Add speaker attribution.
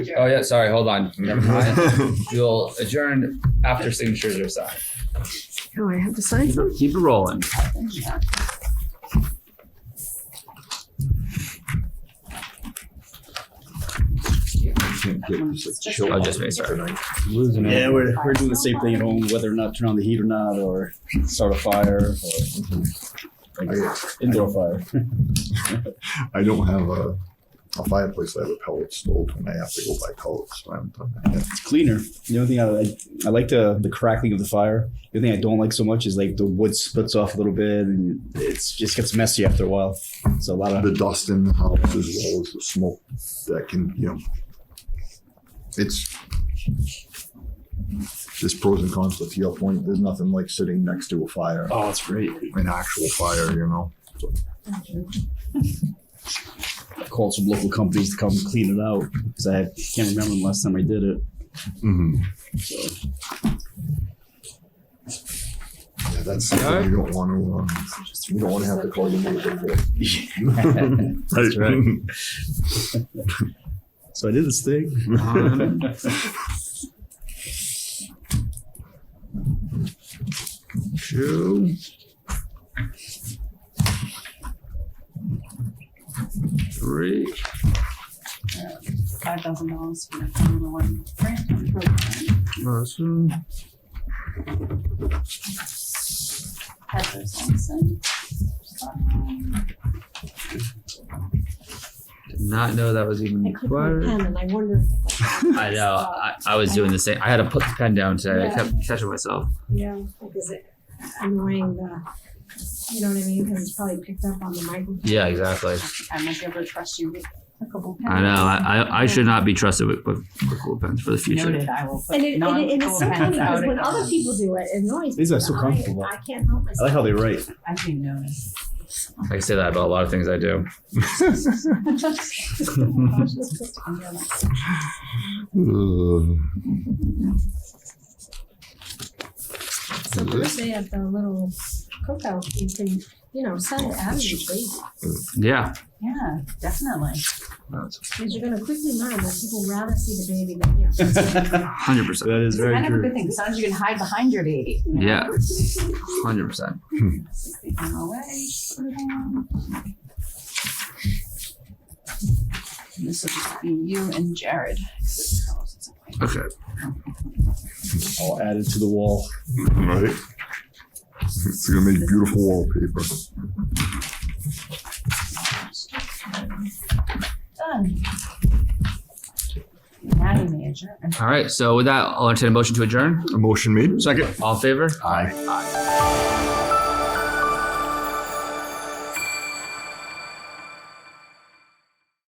Speaker 1: Oh yeah, sorry. Hold on. Never mind. You'll adjourn after signatures are signed.
Speaker 2: Oh, I have to sign
Speaker 3: Keep
Speaker 2: some.
Speaker 3: it, keep it rolling.
Speaker 4: I'll
Speaker 3: I'll Um, Oh, just make sure.
Speaker 5: Losing
Speaker 4: Yeah,
Speaker 5: it.
Speaker 4: we're, we're doing the same thing at home, whether or not turn on the heat or not, or start a fire, or like, indoor fire.
Speaker 5: I don't have a, a fireplace. I have a pellet stove, and I have to go buy pellets. So I haven't done that yet.
Speaker 4: It's cleaner. The only thing I, I, I like the the crackling of the fire. The only thing I don't like so much is like the wood splits off a little bit, and it's just gets messy after a while. It's a lot of
Speaker 5: The dust in the house, as well as the smoke that can, you know, it's there's pros and cons. But to your point, there's nothing like sitting next to a fire,
Speaker 4: oh, it's great.
Speaker 5: an actual fire. You know,
Speaker 4: Called some local companies to come clean it out because I can't remember the last time I did it. So
Speaker 5: yeah, that's something you don't want to. Um, you don't want to have to call your neighbor for.
Speaker 4: That's right. So I did this thing.
Speaker 5: Two.
Speaker 3: Three.
Speaker 6: five thousand dollars for the number one grant program. Have those things and-
Speaker 3: Did not know that was even
Speaker 2: I clicked my
Speaker 3: required.
Speaker 2: pen and I wonder.
Speaker 3: I know. I, I was doing the same. I had to put the pen down today. I
Speaker 2: Yeah.
Speaker 3: kept catching myself.
Speaker 2: Yeah. Like, is it annoying the, you know what I mean? Because it's probably picked up on the microphone.
Speaker 3: Yeah, exactly.
Speaker 6: I might ever trust you with clickable pens.
Speaker 3: I know. I, I, I should not be trusted with, with, with cool pens for the future.
Speaker 6: Noted, I will put
Speaker 2: And it, and it, and it's
Speaker 6: non-clickable
Speaker 2: so funny
Speaker 6: pens out.
Speaker 2: because when other people do it, it annoys me.
Speaker 4: These are
Speaker 2: but
Speaker 4: so
Speaker 2: I-
Speaker 4: comfortable.
Speaker 2: I can't help myself.
Speaker 4: I like how they write.
Speaker 6: I'm being noticed.
Speaker 3: I can say that about a lot of things I do.
Speaker 2: So Thursday at the little cookout, you can, you know, send
Speaker 4: Oh,
Speaker 2: it out of your place.
Speaker 3: Yeah.
Speaker 6: Yeah, definitely.
Speaker 2: Because you're gonna quickly learn that people rather see the baby than you.
Speaker 4: that
Speaker 3: 100%.
Speaker 4: is
Speaker 6: It's
Speaker 4: very
Speaker 6: kind of a
Speaker 4: true.
Speaker 6: good thing, sometimes you can hide behind your baby. you know?
Speaker 3: Yeah. 100%.
Speaker 6: Just leave them away, just put it down. And This will just be you and Jared. 'cause it's house, it's a
Speaker 3: Okay.
Speaker 4: All added to the wall.
Speaker 5: Right? It's gonna make beautiful wallpaper.
Speaker 6: Done. Now you may adjourn.
Speaker 3: All right. So, with that, I'll entertain a motion to adjourn.
Speaker 5: A motion made.
Speaker 3: Second. All in favor?
Speaker 5: Aye.